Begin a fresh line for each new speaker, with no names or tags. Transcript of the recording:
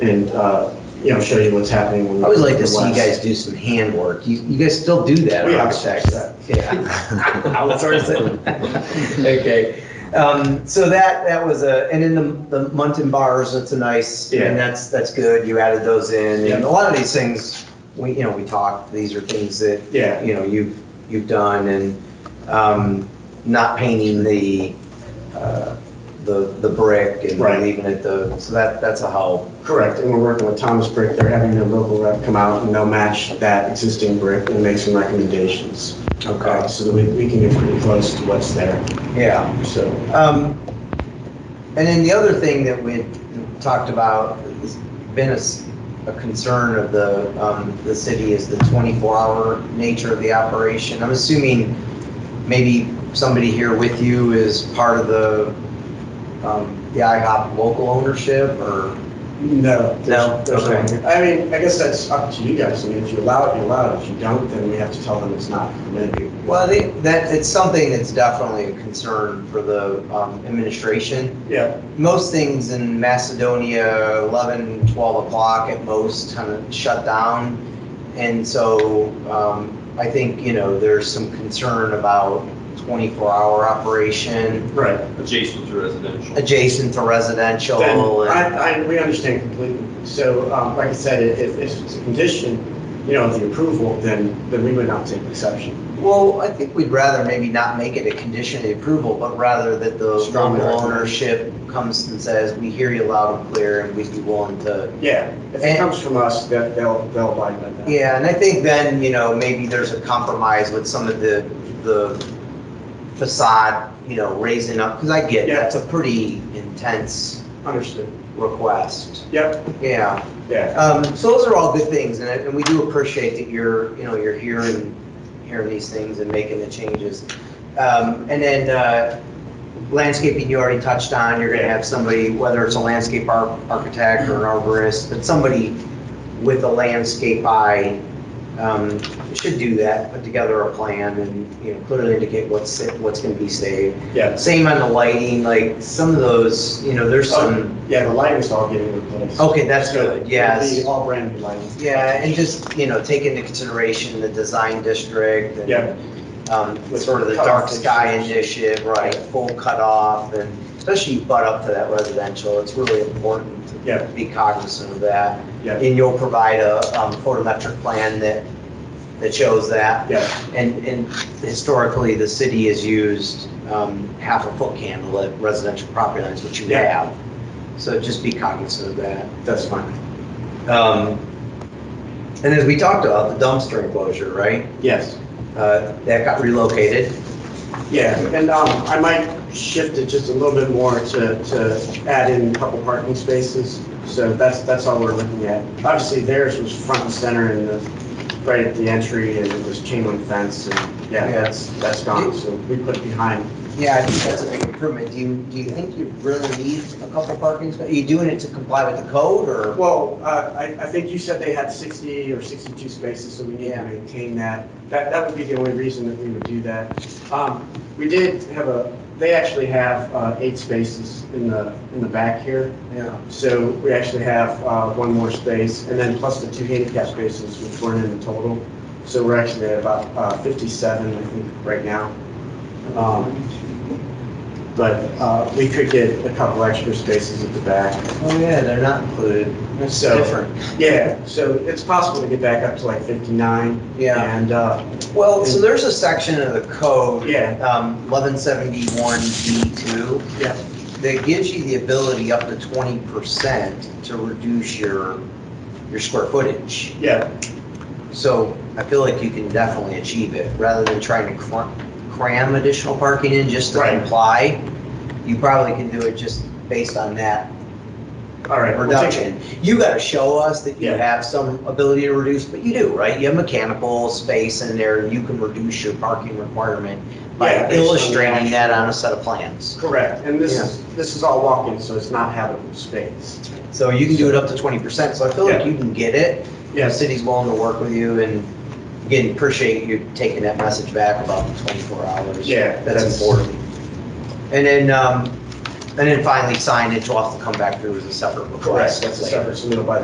and, uh, you know, show you what's happening. when-
I would like to see you
when-
guys do some handwork. You, you guys still do that,
We outsource
architects?
that.
Yeah. Outsource it. Okay. Um, so that, that was a, and then the, the Muntin bars, that's a nice,
Yeah.
and that's, that's good. You added those in. And
Yeah.
a lot of these things, we, you know, we talked, these are things that,
Yeah,
you know, you've, you've done and, um, not painting the, uh, the, the brick and
Right.
leaving it the, so that, that's a help.
correct. And we're working with Thomas Brick. They're having their local rep come out and they'll match that existing brick and make some recommendations. uh, So that we, we can get pretty close to what's there,
Yeah.
so.
Um, And then the other thing that we talked about, has been a, s- a concern of the, um, the city is the 24-hour nature of the operation. I'm assuming maybe somebody here with you is part of the, um, the IHOP local ownership or?
No.
No?
there's- there's
Okay.
one here. I mean, I guess that's up to you guys. I mean, if you allow it, you allow it. If you don't, then we have to tell them it's not permitted.
Well, I think that, it's something that's definitely a concern for the um, administration.
Yeah,
most things in Macedonia, 11, 12 o'clock at most, kind of shut down. And so um, I think, you know, there's some concern about 24-hour operation
right.
adjacent to residential.
adjacent to residential.
Then,
and-
I, I, we understand completely. So, um, like I said, i- if, if it's a condition, you know, of the approval, then, then we would not take exception.
Well, I think we'd rather maybe not make it a condition of the approval, but rather that the
Strongly
local
recommend.
ownership comes and says, we hear you loud and clear, and we'd be willing to
Yeah, if
And-
it comes from us, that, they'll, they'll abide by that.
Yeah, and I think then, you know, maybe there's a compromise with some of the, the facade, you know, raising up, because I get,
Yeah.
that's a pretty intense
Understood.
request.
Yep,
Yeah,
yeah,
um, so those are all good things, and, I- and we do appreciate that you're, you know, you're hearing, hearing these things and making the changes. Um, and then, uh, landscaping, you already touched on, you're gonna have somebody, whether it's a landscape ar- architect or an arborist, but somebody with a landscape eye, um, should do that, put together a plan and, you know, clearly indicate what's, sa- what's gonna be saved.
yeah.
Same on the lighting, like, some of those, you know, there's some,
Um, Yeah, the lighting's all getting replaced.
okay, that's good, yes.
It'll be all brand new lighting.
Yeah, and just, you know, take into consideration the design district and.
Yeah.
Um,
With
sort of the
cutoff
dark sky
issues.
initiative, right, full cutoff and especially you butt up to that residential, it's really important to
Yeah,
be cognizant of that.
yeah,
And you'll provide a, um, photometric plan that, that shows that.
yeah,
And, and historically, the city has used um, half a foot candle at residential property lines, which you
Yeah.
have. So just be cognizant of that.
that's fine.
Um, And as we talked about, the dumpster enclosure, right?
Yes.
Uh, That got relocated.
Yeah, and um, I might shift it just a little bit more to, to add in a couple parking spaces. So that's, that's all we're looking at. Obviously theirs was front and center and the, right at the entry and it was chain link fence and yeah, that's, that's gone. So we put it behind.
Yeah, I think that's a big improvement. Do you, do you think you really need a couple parking spaces? Are you doing it to comply with the code or?
Well, uh, I, I think you said they had 60 or 62 spaces, so we need to
Yeah.
maintain that. That, that would be the only reason that we would do that. Um, We did have a, they actually have uh, eight spaces in the, in the back here.
Yeah.
So we actually have uh, one more space, and then plus the two handicap spaces, which weren't in the total. So we're actually at about uh, 57, I think, right now. Um, But uh, we could get a couple extra spaces at the back.
Oh, yeah, they're not included. That's
So-
different.
Yeah, so it's possible to get back up to like 59.
Yeah.
And, uh,
Well, so there's a section of the code.
Yeah.
Um, 1171B2.
yeah,
that gives you the ability up to twenty percent to reduce your, your square footage.
yeah,
So I feel like you can definitely achieve it, rather than trying to cr- cram additional parking in just to
Right.
comply. You probably can do it just based on that
all right. we'll take-
reduction. You gotta show us that you
Yeah.
have some ability to reduce, but you do, right? You have mechanical space in there, you can reduce your parking requirement
Yeah,
by
based on the
illustrating
actual-
that on a set of plans.
Correct, and this is, this is all walk-in, so it's not habitable space.
So you can do it up to twenty percent, so I feel like
Yeah.
you can get it. The
Yes,
city's willing to work with you, and again, appreciate you taking that message back about the twenty-four hours.
Yeah,
That's
that's-
important. And then, um, And then finally signage will have to come back through as a separate request.
That's a
later.
separate submittal by the